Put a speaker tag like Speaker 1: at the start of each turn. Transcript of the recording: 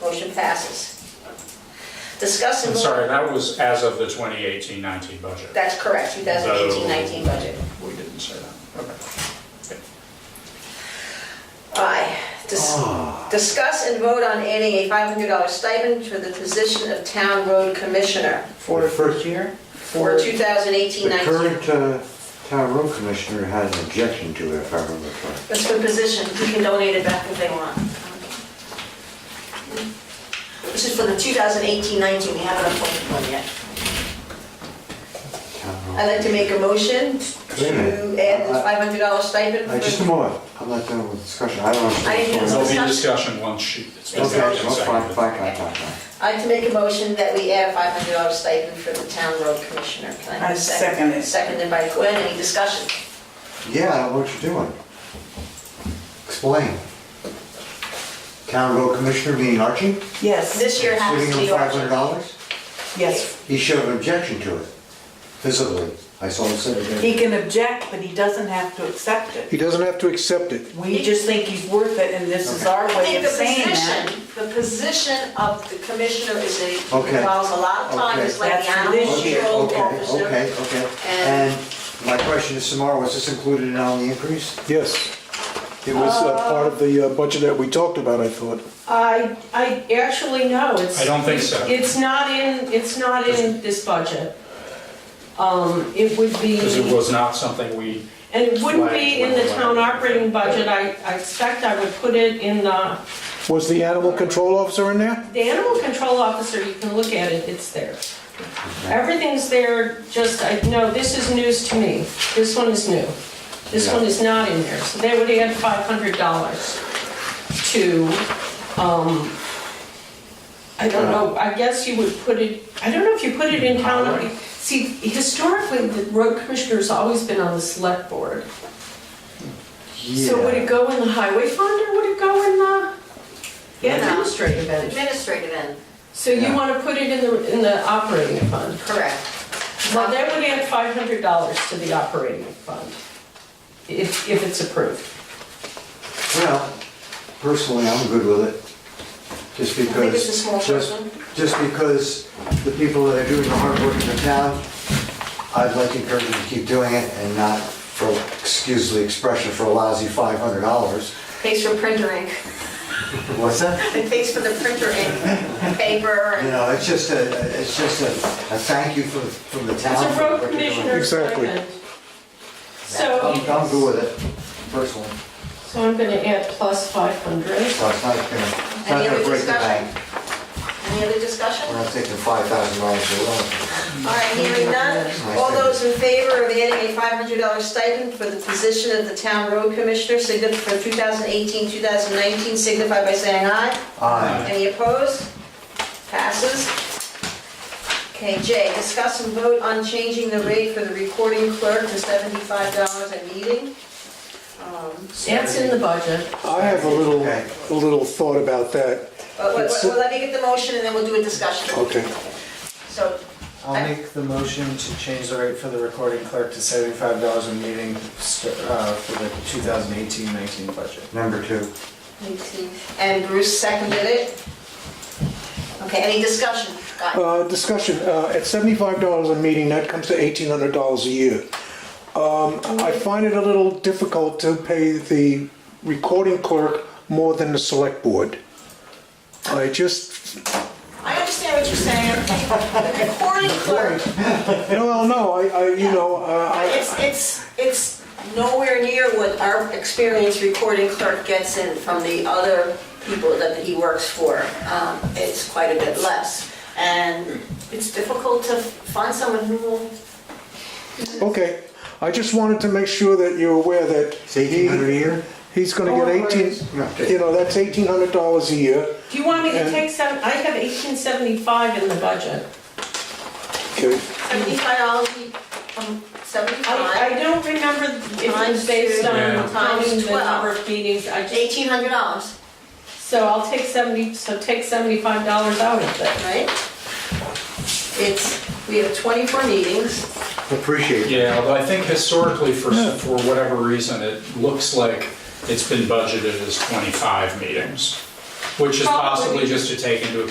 Speaker 1: Motion passes. Discuss and
Speaker 2: I'm
Speaker 1: vote.
Speaker 2: sorry, that was as of the 2018-19 budget.
Speaker 1: That's correct, 2018-19 budget.
Speaker 2: We didn't say that. Okay.
Speaker 1: Aye. Dis-
Speaker 3: Ah.
Speaker 1: Discuss and vote on adding a $500 stipend for the position of town road commissioner
Speaker 3: For the first year?
Speaker 1: for
Speaker 3: The
Speaker 1: 2018-19.
Speaker 3: current uh, town road commissioner had an objection to it, if I remember correctly.
Speaker 1: That's for position, we can donate it back if they want. This is for the 2018-19, we haven't appointed one yet.
Speaker 3: Town road-
Speaker 1: I'd like to make a motion
Speaker 3: Wait a
Speaker 1: to
Speaker 3: minute.
Speaker 1: add this $500 stipend.
Speaker 3: Hey, Just a
Speaker 1: for-
Speaker 3: moment, I'm not done with discussion, I don't
Speaker 1: I
Speaker 3: understand.
Speaker 1: didn't
Speaker 2: There'll
Speaker 3: Okay,
Speaker 2: be discussion once she, it's been
Speaker 3: Okay,
Speaker 2: made and
Speaker 3: well, fine,
Speaker 2: seconded.
Speaker 3: fine, fine, fine, fine.
Speaker 1: I'd like to make a motion that we add a $500 stipend for the town road commissioner. Can I have
Speaker 4: I
Speaker 1: a second?
Speaker 4: second it.
Speaker 1: Seconded by Gwen, any discussion?
Speaker 3: Yeah, I know what you're doing. Explain. Town road commissioner, meaning Archie?
Speaker 4: Yes,
Speaker 1: This year it happens to
Speaker 3: Giving
Speaker 1: be
Speaker 3: him
Speaker 1: ours.
Speaker 3: five hundred dollars?
Speaker 4: yes.
Speaker 3: He showed an objection to it, visibly. I saw him sit
Speaker 4: He
Speaker 3: there.
Speaker 4: can object, but he doesn't have to accept
Speaker 5: He
Speaker 4: it.
Speaker 5: doesn't have to accept it.
Speaker 4: We just think he's worth it, and this is our
Speaker 1: I
Speaker 4: way
Speaker 1: think
Speaker 4: of
Speaker 1: the
Speaker 4: saying that.
Speaker 1: position, the position of the commissioner is a,
Speaker 3: Okay.
Speaker 1: involves a lot of time,
Speaker 3: Okay.
Speaker 1: it's like the
Speaker 4: That's
Speaker 1: animal
Speaker 4: this year.
Speaker 1: control
Speaker 3: Okay,
Speaker 1: officer.
Speaker 3: okay, okay.
Speaker 1: And-
Speaker 3: And my question is, Samara, was this included in on the increase?
Speaker 5: Yes. It was uh, part of the uh, budget that we talked about, I thought.
Speaker 6: I, I actually know, it's.
Speaker 2: I don't think so.
Speaker 6: It's not in, it's not in this budget. Um, it would be,
Speaker 2: Because it was not something we,
Speaker 6: and it wouldn't be in the
Speaker 2: Flag.
Speaker 6: town operating budget, I, I expect I would put it in the,
Speaker 5: Was the animal control officer in there?
Speaker 6: the animal control officer, you can look at it, it's there. Everything's there, just, I, no, this is news to me, this one is new. This one is not in there, so they would add five hundred dollars to, um, I don't know, I guess you would put it, I don't know if you put it in town. See, historically, the road commissioner's always been on the select board. So would it go in the highway fund or would it go in the
Speaker 1: Yeah.
Speaker 6: administrative end?
Speaker 1: Administrative end,
Speaker 6: So you
Speaker 3: Yeah.
Speaker 6: wanna put it in the, in the operating fund?
Speaker 1: correct.
Speaker 6: Well, they would add five hundred dollars to the operating fund, if, if it's approved.
Speaker 3: Well, personally, I'm good with it, just because.
Speaker 1: think it's a small
Speaker 3: just-
Speaker 1: person.
Speaker 3: Just because the people that are doing the hard work in the town, I'd like to encourage them to keep doing it and not for, excuse the expression, for a lousy five hundred dollars.
Speaker 1: Thanks for printer ink,
Speaker 3: What's that?
Speaker 1: and thanks for the printer ink, paper,
Speaker 3: You
Speaker 1: and
Speaker 3: know, it's just a, it's just a, a thank you from, from the town.
Speaker 6: It's a
Speaker 3: for
Speaker 6: road
Speaker 3: what you're doing.
Speaker 6: commissioner
Speaker 5: Exactly.
Speaker 6: stipend.
Speaker 3: I'm,
Speaker 6: So,
Speaker 3: I'm good with it, personally.
Speaker 6: so I'm gonna add plus five hundred.
Speaker 3: So it's not gonna, it's not
Speaker 1: Any
Speaker 3: gonna
Speaker 1: other
Speaker 3: break the
Speaker 1: discussion?
Speaker 3: bank.
Speaker 1: any other discussion?
Speaker 3: We're
Speaker 1: All
Speaker 3: not taking five thousand dollars alone.
Speaker 1: right, hearing none, all those in favor of adding a $500 stipend for the position of the town road commissioner signif- for 2018-2019 signify by saying aye.
Speaker 3: Aye.
Speaker 1: Any opposed? Passes. Okay, Jay, discuss and vote on changing the rate for the recording clerk to $75 a meeting. Um,
Speaker 6: That's in the budget.
Speaker 5: I have a little,
Speaker 3: Okay.
Speaker 5: a little thought about that.
Speaker 1: But but- but let me get the motion and then we'll do a discussion.
Speaker 5: Okay.
Speaker 1: So,
Speaker 7: I'll make the motion to change the rate for the recording clerk to seventy-five dollars a meeting st- uh, for the 2018-19 budget.
Speaker 3: Number two.
Speaker 1: and Bruce seconded it. Okay, any discussion? Guy?
Speaker 5: Uh, Discussion, uh, at $75 a meeting, that comes to $1,800 a year. Um, I find it a little difficult to pay the recording clerk more than the select board. I just,
Speaker 1: I understand what you're saying. The recording clerk,
Speaker 5: no, no, I, I, you know, uh, I...
Speaker 1: it's, it's, it's nowhere near what our experienced recording clerk gets in from the other people that he works for. Um, It's quite a bit less. And it's difficult to find someone who will
Speaker 5: Okay, I just wanted to make sure that you're aware that.
Speaker 3: It's eighteen hundred a
Speaker 5: he-
Speaker 3: year?
Speaker 5: He's gonna get
Speaker 6: Oh,
Speaker 5: eighteen,
Speaker 3: right.
Speaker 5: you know, that's eighteen hundred dollars a year.
Speaker 6: Do you want me to
Speaker 5: And-
Speaker 6: take seven, I have eighteen seventy-five in the budget.
Speaker 5: Okay,
Speaker 1: seventy-five dollars, um,
Speaker 6: I, I
Speaker 1: seventy-five,
Speaker 6: don't remember if it was
Speaker 1: Times
Speaker 6: based
Speaker 1: two.
Speaker 2: Yeah.
Speaker 6: on counting
Speaker 1: Times
Speaker 6: the number of meetings, I just,
Speaker 1: eighteen hundred dollars,
Speaker 6: so I'll take seventy, so take seventy-five dollars out of it.
Speaker 1: right? It's, we have twenty-four meetings.
Speaker 3: Appreciate it.
Speaker 2: yeah, although I think historically, for, for whatever reason, it looks like it's been budgeted as 25 meetings. which is possibly
Speaker 6: Probably.
Speaker 2: just to take into